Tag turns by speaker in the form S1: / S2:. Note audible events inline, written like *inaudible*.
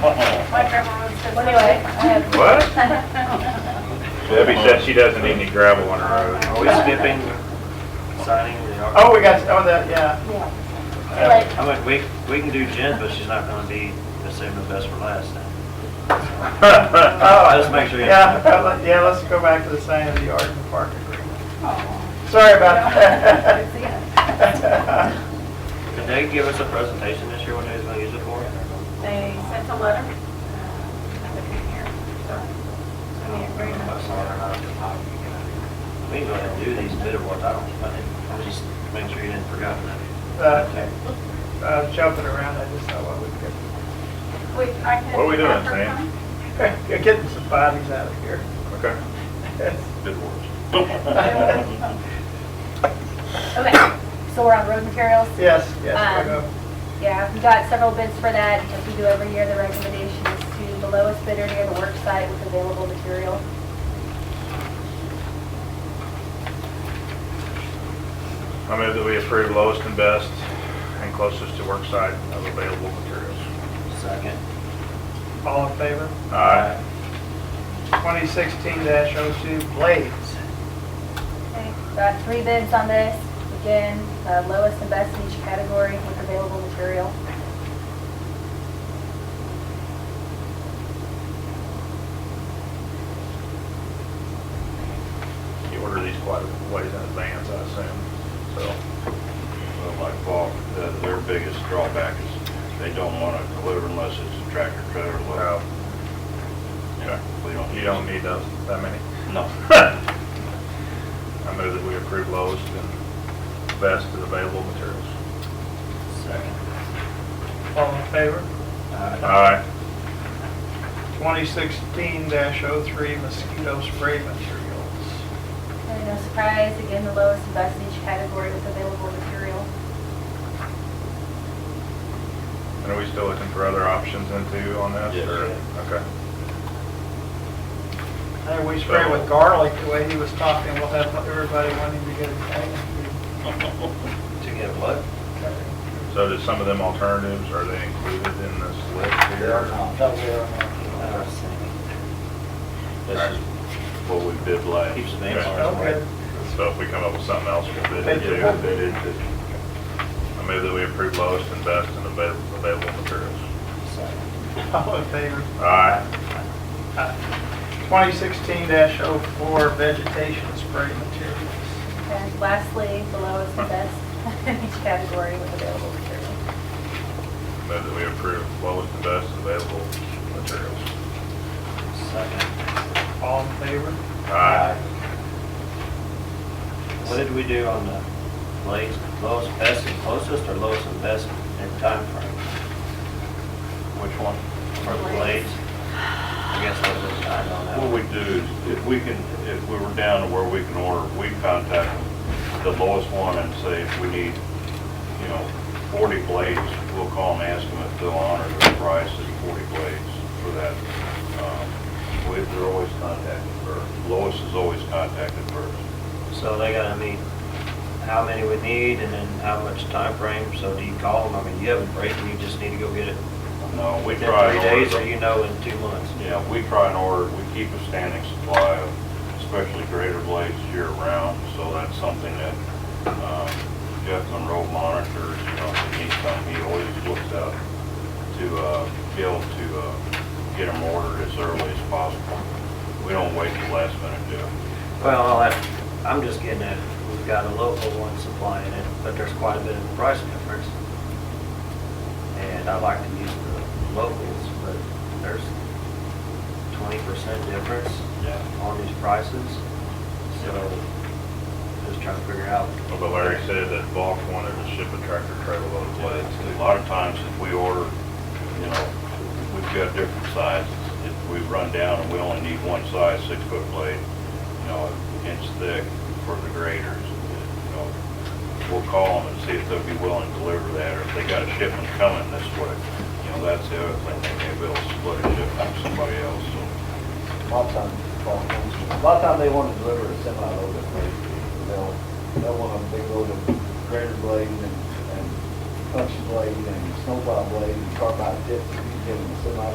S1: Uh-uh.
S2: My grandma was just.
S3: Well, anyway, I have,
S1: What?
S2: *laughs*
S1: Debbie said she doesn't need any gravel on her road.
S4: Are we skipping signing the article?
S5: Oh, we got, oh, that, yeah.
S3: yeah,
S2: *laughs*
S4: Yeah, I mean, we, we can do Jen, but she's not gonna be the same the best for last then. Let's make sure you-
S5: oh. Yeah, let- yeah, let's go back to the sign of the yard and park agreement. Sorry
S2: *laughs*
S5: about that.
S4: Did they give us a presentation this year, what they was gonna use it for?
S2: They sent a letter. uh, with it here, so, in the agreement.
S4: We can go ahead and do these bid awards, I don't, I didn't, I'm just making sure you didn't forget that.
S5: Uh, uh, Jumping around, I just thought, well, we
S2: We, I can.
S1: What are we doing,
S2: have her
S1: Sam?
S2: come.
S5: could, *laughs* we're getting some bodies out of here.
S1: Okay. Good words.
S5: Yes,
S3: okay, so we're on road materials.
S5: yes, we'll
S3: Um,
S5: go.
S3: Yeah, we got several bids for that, as we do every year, the recommendation is to the lowest bidder near the work site with available material.
S1: I move that we approve lowest and best and closest to work site of available materials.
S4: Second.
S5: All in favor?
S1: Aye.
S5: 2016-02 Blades.
S3: Okay, Got three bids on this, again, uh, lowest and best in each category with available material.
S1: You order these quite a ways in advance, I assume, so.
S6: Well, like Bob, uh, their biggest drawback is they don't want to deliver unless it's a tractor trailer load.
S1: well,
S6: We don't.
S1: You don't need those, that many. *laughs*
S6: No.
S1: I move that we approve lowest and best of available materials.
S4: Second.
S5: All in favor?
S1: Aye.
S5: 2016-03 Mosquito Spray Materials.
S3: And no surprise, again, the lowest and best in each category with available material.
S1: And are we still looking for other options into on this?
S6: Yes.
S1: or- Okay.
S5: Hey, we spray with garlic, the way he was talking, we'll have everybody wanting to get a thing.
S4: To get what?
S1: So did some of them alternatives, are they included in this list here?
S4: Uh,
S6: This is what we bid last.
S4: Keeps the names
S1: Okay.
S4: on it.
S5: Okay.
S1: So if we come up with something else, we'll bid it too.
S6: Yeah, we bid it this-
S1: I move that we approve lowest and best in avail- available materials.
S4: Second.
S5: All in favor?
S1: Aye.
S5: 2016-04 Vegetation Spray Materials.
S3: And lastly, the lowest and best *laughs* in each category with available material.
S1: Move that we approve lowest and best available materials.
S4: Second.
S5: All in favor?
S1: Aye.
S4: What did we do on the blades, lowest, best, and closest, or lowest and best in time frame? Which one? For the blades? I guess I was behind on that.
S6: What we do is if we can, if we were down to where we can order, we contact the lowest one and say if we need, you know, 40 blades, we'll call and ask them if they'll honor the price of 40 blades for that. Um, We, they're always contacted first. Lois is always contacted first.
S4: So they gotta meet how many we need and then how much time frame. so do you call them, I mean, you have a break and you just need to go get it
S6: No, we
S4: within
S6: try
S4: three
S6: and order
S4: days, or
S6: them.
S4: you know in two months?
S6: Yeah, we try and order, we keep a standing supply of especially greater blades year round, so that's something that um, Jeff Monroe monitors, you know, if he needs something, he always looks out to uh, be able to uh, get them ordered as early as possible. We don't wait till last minute, do it.
S4: Well, I'll have, I'm just getting at, we've got a local one supplying it, but there's quite a bit of price difference. And I like to use the locals, but there's twenty percent difference on these prices. So just trying to figure out.
S1: Well, But Larry said that Volk wanted to ship a tractor trailer load of
S6: But
S1: blades.
S6: it's- a lot of times if we order, you know, we've got different sizes. If we run down and we only need one size, six-foot blade, you know, inch thick for the graders, you know, we'll call them and see if they'll be willing to deliver that, or if they got a shipment coming this way. You know, that's the other thing, they may be able to split a shipment with somebody else, so.
S7: A lot of times, a lot of times they want to deliver a semi-load of blade. They'll, they'll want a big load of grater blade and, and punch blade and snowplow blade and carbide tips. If you give them a semi